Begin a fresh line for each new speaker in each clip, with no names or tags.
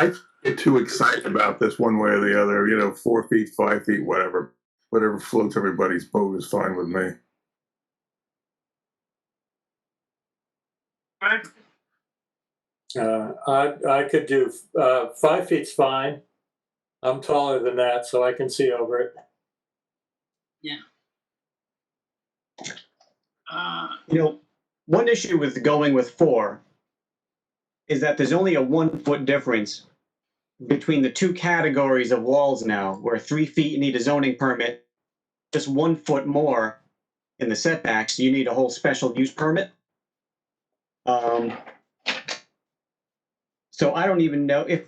I get too excited about this one way or the other. You know, four feet, five feet, whatever, whatever floats everybody's boat is fine with me. Right.
Uh, I, I could do, uh, five feet's fine. I'm taller than that, so I can see over it.
Uh,
You know, one issue with going with four is that there's only a one foot difference between the two categories of walls now, where three feet you need a zoning permit, just one foot more in the setbacks, you need a whole special use permit. Um, so I don't even know if,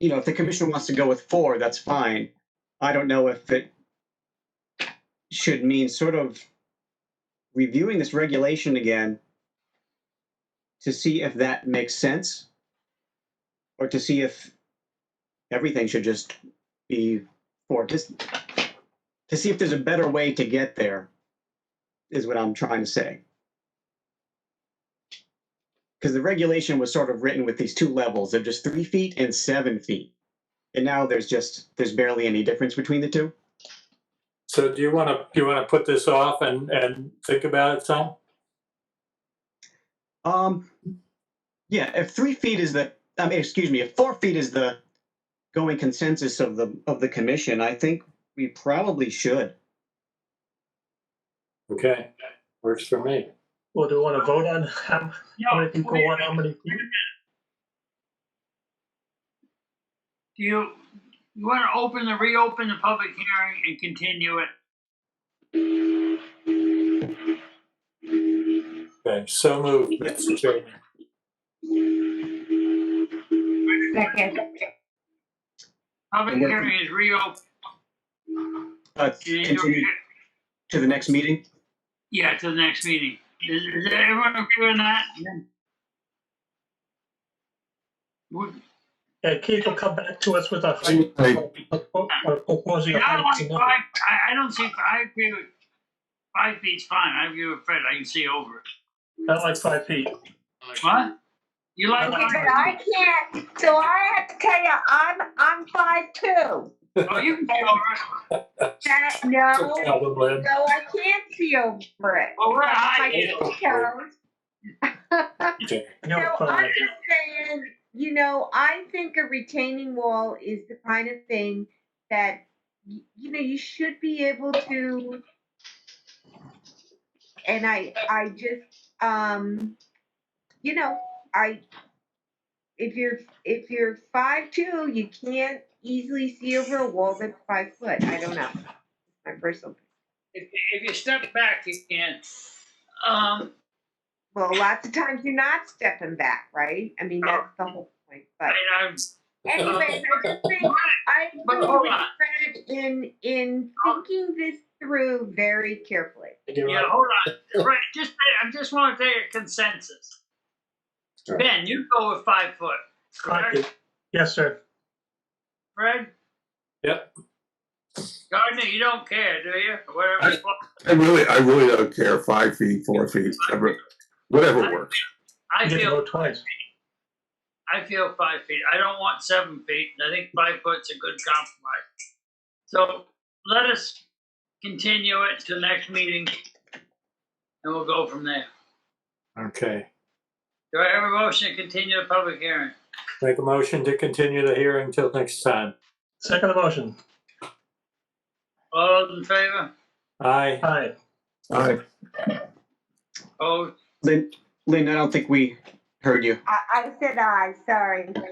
you know, if the commissioner wants to go with four, that's fine. I don't know if it should mean sort of reviewing this regulation again to see if that makes sense or to see if everything should just be for just to see if there's a better way to get there is what I'm trying to say. Because the regulation was sort of written with these two levels of just three feet and seven feet. And now there's just there's barely any difference between the two.
So do you want to, do you want to put this off and, and think about it some?
Um, yeah, if three feet is the, I mean, excuse me, if four feet is the going consensus of the, of the commission, I think we probably should.
Okay, works for me.
Well, do we want to vote on how how
yeah,
many people want how many?
Wait a minute. Do you, you want to open the, reopen the public hearing and continue it?
Okay, so moved, Mr. Chairman.
Second,
Public
And we're-
hearing is reopened.
Uh,
and you're-
continue to the next meeting?
Yeah, to the next meeting. Is, is everyone agree on that? Would-
And Keith will come back to us with a
Hey.
or proposing a
I don't like
height.
five, I, I don't see, I agree with, five feet's fine. I agree with Fred. I can see over it.
Not like five feet.
What? You like?
I
but
like
five-
I can't, so I have to tell you, I'm, I'm five two.
Oh, you can see over it.
That, no, no,
Problem, Lynn.
I can't see over it.
Well, we're
My
high.
big toes.
I
So
know it's
I'm
five.
just saying, you know, I think a retaining wall is the kind of thing that, y- you know, you should be able to. And I, I just, um, you know, I, if you're, if you're five two, you can't easily see over a wall that's five foot. I don't know. My personal,
If, if you step back, you can. Um,
well, lots of times you're not stepping back, right? I mean, that's the whole point, but.
I, I'm,
Anyways, I just think I
But
agree
hold
with
on.
Fred in in thinking this through very carefully.
You're
yeah,
right.
hold on. Right, just, I just want to take a consensus.
Sure.
Ben, you go with five foot,
Five
correct?
feet. Yes, sir.
Fred?
Yep.
Gardner, you don't care, do you? Whatever.
I really, I really don't care. Five feet, four feet, whatever, whatever works.
I
You get to
feel,
vote twice.
I feel five feet. I don't want seven feet, and I think five foot's a good compromise. So let us continue it to next meeting, and we'll go from there.
Okay,
Do I have a motion to continue the public hearing?
make a motion to continue the hearing till next time.
Second motion.
All those in favor?
Aye.
Aye.
All right.
Oh,
Lynn, Lynn, I don't think we heard you.
I, I said I, sorry.
uh,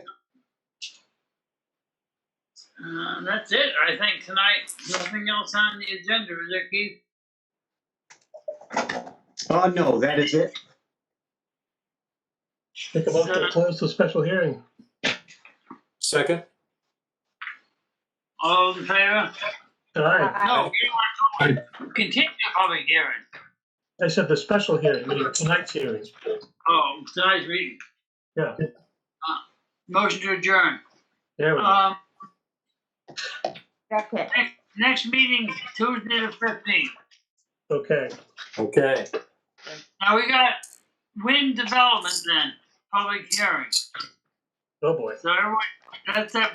that's it, I think, tonight. Nothing else on the agenda, is there, Keith?
Oh, no, that is it.
Make a motion to close the special hearing.
Second?
All those in favor?
Aye.
No,
I-
you don't want to continue the public hearing.
I said the special hearing, meaning tonight's hearing.
Oh, tonight's meeting.
Yeah.
Uh, Motion to adjourn.
There we go.
Um,
That's it.
next meeting Tuesday the fifteenth.
Okay.
Okay,
Now, we got wind development then, public hearing.
Oh, boy.
So everyone, that's that